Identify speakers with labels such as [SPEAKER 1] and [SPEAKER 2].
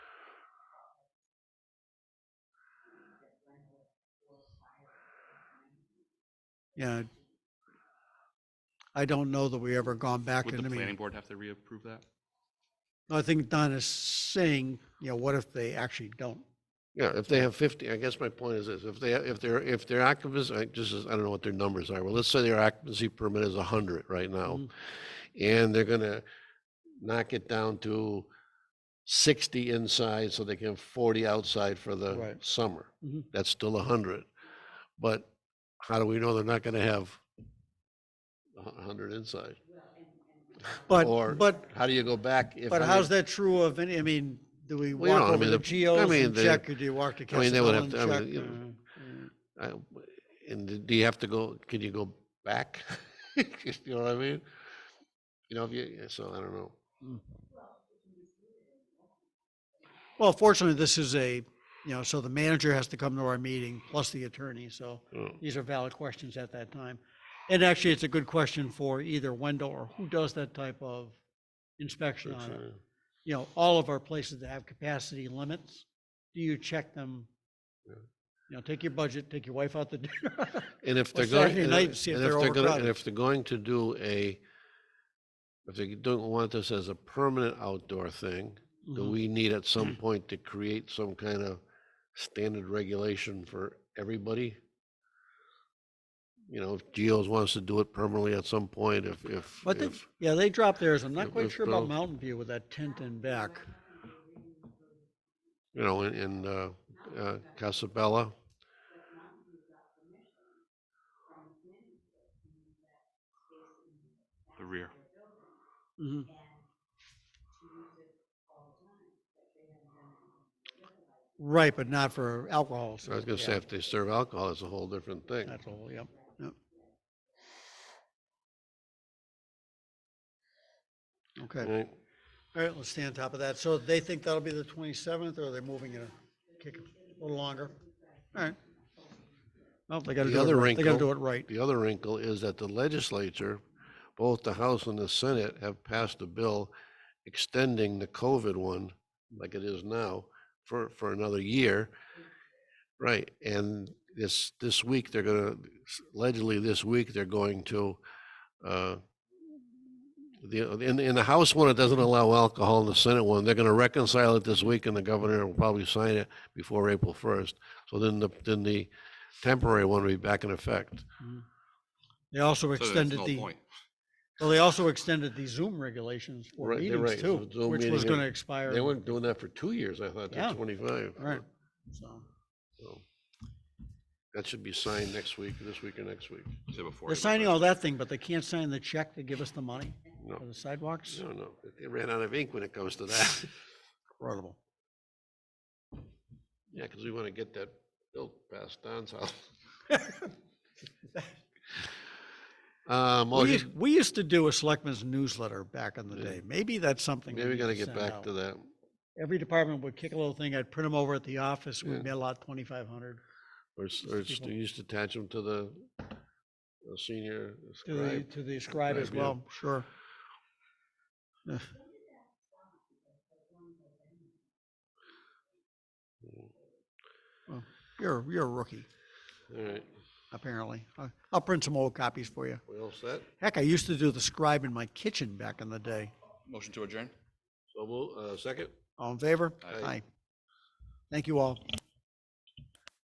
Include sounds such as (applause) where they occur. [SPEAKER 1] Yeah. I don't know that we ever gone back
[SPEAKER 2] Would
[SPEAKER 1] and
[SPEAKER 2] the
[SPEAKER 1] I
[SPEAKER 2] planning
[SPEAKER 1] mean,
[SPEAKER 2] board have to reapprove that?
[SPEAKER 1] I think Don is saying, you know, what if they actually don't?
[SPEAKER 3] Yeah, if they have fifty, I guess my point is this, if they, if they're, if their occupancy, I just, I don't know what their numbers are, well, let's say their occupancy permit is hundred right now.
[SPEAKER 1] Mhm.
[SPEAKER 3] And they're gonna knock it down to sixty inside, so they can have forty outside for the
[SPEAKER 1] Right.
[SPEAKER 3] summer.
[SPEAKER 1] Mhm.
[SPEAKER 3] That's still hundred, but how do we know they're not gonna have a hundred inside? Or
[SPEAKER 1] But, but,
[SPEAKER 3] How do you go back? if
[SPEAKER 1] but
[SPEAKER 3] I
[SPEAKER 1] how's
[SPEAKER 3] mean-
[SPEAKER 1] that true of any, I mean, do we
[SPEAKER 3] Well, you know,
[SPEAKER 1] walk
[SPEAKER 3] I
[SPEAKER 1] over
[SPEAKER 3] mean,
[SPEAKER 1] the
[SPEAKER 3] the- I
[SPEAKER 1] geos
[SPEAKER 3] mean,
[SPEAKER 1] and
[SPEAKER 3] the-
[SPEAKER 1] check or do you walk to
[SPEAKER 3] I mean, they would
[SPEAKER 1] Casablanca and
[SPEAKER 3] have to- I
[SPEAKER 1] check?
[SPEAKER 3] mean,
[SPEAKER 1] Uh, uh,
[SPEAKER 3] I- And d- do you have to go, can you go back? (laughs) You know what I mean? You know, if you, yeah, so I don't know.
[SPEAKER 1] Well, fortunately, this is a, you know, so the manager has to come to our meeting plus the attorney, so
[SPEAKER 3] Oh,
[SPEAKER 1] these are valid questions at that time. And actually, it's a good question for either Wendell or who does that type of inspection
[SPEAKER 3] that's,
[SPEAKER 1] on it.
[SPEAKER 3] uh,
[SPEAKER 1] you know, all of our places that have capacity limits, do you check them?
[SPEAKER 3] Yeah.
[SPEAKER 1] You know, take your budget, take your wife out to (laughs) dinner.
[SPEAKER 3] And if they're
[SPEAKER 1] Or
[SPEAKER 3] going,
[SPEAKER 1] Saturday
[SPEAKER 3] and
[SPEAKER 1] night,
[SPEAKER 3] if-
[SPEAKER 1] see if
[SPEAKER 3] and if
[SPEAKER 1] they're
[SPEAKER 3] they're gonna, and
[SPEAKER 1] overcrowded.
[SPEAKER 3] if they're going to do a, if they don't want this as a permanent outdoor thing, do
[SPEAKER 1] Mhm.
[SPEAKER 3] we need
[SPEAKER 1] (clears throat)
[SPEAKER 3] at some point to create some kind of standard regulation for everybody? You know, if Geo's wants to do it permanently at some point, if, if,
[SPEAKER 1] But they,
[SPEAKER 3] if,
[SPEAKER 1] yeah, they drop theirs. I'm not
[SPEAKER 3] if-
[SPEAKER 1] quite
[SPEAKER 3] if
[SPEAKER 1] sure about
[SPEAKER 3] both-
[SPEAKER 1] Mountain View with that tent in back.
[SPEAKER 3] you know, in, in, uh, uh, Casabella.
[SPEAKER 2] The rear.
[SPEAKER 1] Mhm. Right, but not for alcohol.
[SPEAKER 3] I was
[SPEAKER 1] so,
[SPEAKER 3] gonna say,
[SPEAKER 1] yeah,
[SPEAKER 3] if they serve alcohol, it's a whole different thing.
[SPEAKER 1] That's all, yep, yep. Okay.
[SPEAKER 3] Right?
[SPEAKER 1] All right, let's stay on top of that. So they think that'll be the twenty-seventh, or they're moving it, a- kick it a little longer? All right. Well, they gotta
[SPEAKER 3] The
[SPEAKER 1] do it
[SPEAKER 3] other
[SPEAKER 1] right. They gotta
[SPEAKER 3] wrinkle-
[SPEAKER 1] do it right.
[SPEAKER 3] The other wrinkle is that the legislature, both the House and the Senate, have passed a bill extending the COVID one, like it is now, for, for another year. Right, and this, this week, they're gonna, allegedly this week, they're going to, uh, the, in, in the House one, it doesn't allow alcohol, in the Senate one, they're gonna reconcile it this week, and the governor will probably sign it before April first. So then the, then the temporary one will be back in effect.
[SPEAKER 1] They also
[SPEAKER 2] So there's
[SPEAKER 1] extended
[SPEAKER 2] no
[SPEAKER 1] the,
[SPEAKER 2] point.
[SPEAKER 1] well, they also extended the Zoom regulations for
[SPEAKER 3] Right, they're
[SPEAKER 1] meetings
[SPEAKER 3] right, so
[SPEAKER 1] too,
[SPEAKER 3] Zoom
[SPEAKER 1] which was
[SPEAKER 3] meeting and-
[SPEAKER 1] gonna expire.
[SPEAKER 3] They weren't doing that for two years, I thought,
[SPEAKER 1] Yeah.
[SPEAKER 3] to twenty-five.
[SPEAKER 1] Right, so.
[SPEAKER 3] So, That should be signed next week, this week or next week.
[SPEAKER 2] Say before
[SPEAKER 1] They're
[SPEAKER 2] April
[SPEAKER 1] signing
[SPEAKER 2] 1st.
[SPEAKER 1] all that thing, but they can't sign the check to give us the money
[SPEAKER 3] No,
[SPEAKER 1] for the sidewalks?
[SPEAKER 3] no, no, they ran out of ink when it comes to that. (laughs)
[SPEAKER 1] Incredible.
[SPEAKER 3] Yeah, because we want to get that built past Don's house.
[SPEAKER 1] (laughs)
[SPEAKER 3] Uh,
[SPEAKER 1] We,
[SPEAKER 3] motion,
[SPEAKER 1] used- we used to do a selectmen's newsletter back in the
[SPEAKER 3] Yeah.
[SPEAKER 1] day. Maybe that's something.
[SPEAKER 3] maybe we
[SPEAKER 1] need
[SPEAKER 3] gotta
[SPEAKER 1] to
[SPEAKER 3] get
[SPEAKER 1] send
[SPEAKER 3] back
[SPEAKER 1] out.
[SPEAKER 3] to that.
[SPEAKER 1] every department would kick a little thing, I'd print them over at the office,
[SPEAKER 3] Yeah.
[SPEAKER 1] we'd mail out twenty-five hundred
[SPEAKER 3] Or, s- or s-
[SPEAKER 1] people.
[SPEAKER 3] you used to attach them to the the senior
[SPEAKER 1] to the,
[SPEAKER 3] scribe.
[SPEAKER 1] to the scribe as
[SPEAKER 3] scribe, yeah.
[SPEAKER 1] well, sure. Yeah. Well, You're, you're a rookie,
[SPEAKER 3] All right,
[SPEAKER 1] apparently. I- I'll print some old copies for you.
[SPEAKER 3] we all set?
[SPEAKER 1] Heck, I used to do the scribe in my kitchen back in the day.
[SPEAKER 2] Motion to adjourn?
[SPEAKER 3] So we'll, uh, second?
[SPEAKER 1] All in favor?
[SPEAKER 2] Aye.
[SPEAKER 1] Thank you all.